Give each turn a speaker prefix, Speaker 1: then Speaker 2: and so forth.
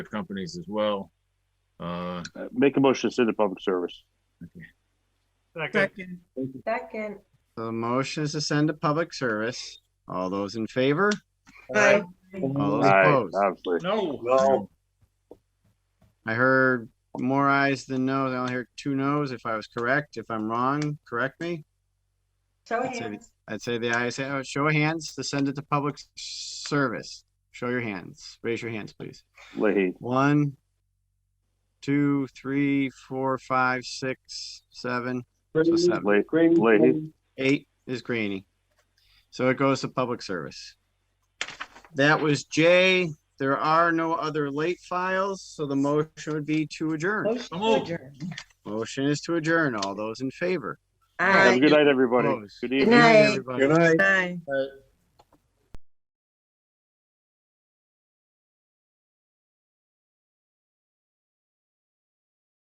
Speaker 1: companies as well. Uh,
Speaker 2: Uh, Make a motion to send to public service.
Speaker 3: Second.
Speaker 4: Second.
Speaker 5: Second,
Speaker 6: The motion is to send to public service. All those in favor?
Speaker 4: Aye.
Speaker 6: All those
Speaker 2: Aye,
Speaker 6: opposed?
Speaker 2: obviously.
Speaker 4: No.
Speaker 6: I heard more ayes than noes. I only heard two noes. If I was correct, if I'm wrong, correct me.
Speaker 5: show
Speaker 6: That's it.
Speaker 5: hands.
Speaker 6: I'd say the ayes, have it. show of hands to send it to public service. Show your hands. Raise your hands, please.
Speaker 2: Leahy,
Speaker 6: One, two, three, four, five, six, seven, so seven.
Speaker 2: Le- Leahy,
Speaker 6: Eight is Graney. So it goes to public service. That was J. There are no other late files, so the motion would be to adjourn.
Speaker 4: So moved.
Speaker 6: Motion is to adjourn. All those in favor?
Speaker 5: Aye.
Speaker 2: have a good night, everybody.
Speaker 6: Opposed?
Speaker 2: Good
Speaker 5: Good
Speaker 2: evening.
Speaker 5: night.
Speaker 6: Everybody.
Speaker 4: night.
Speaker 3: Aye.
Speaker 6: Uh,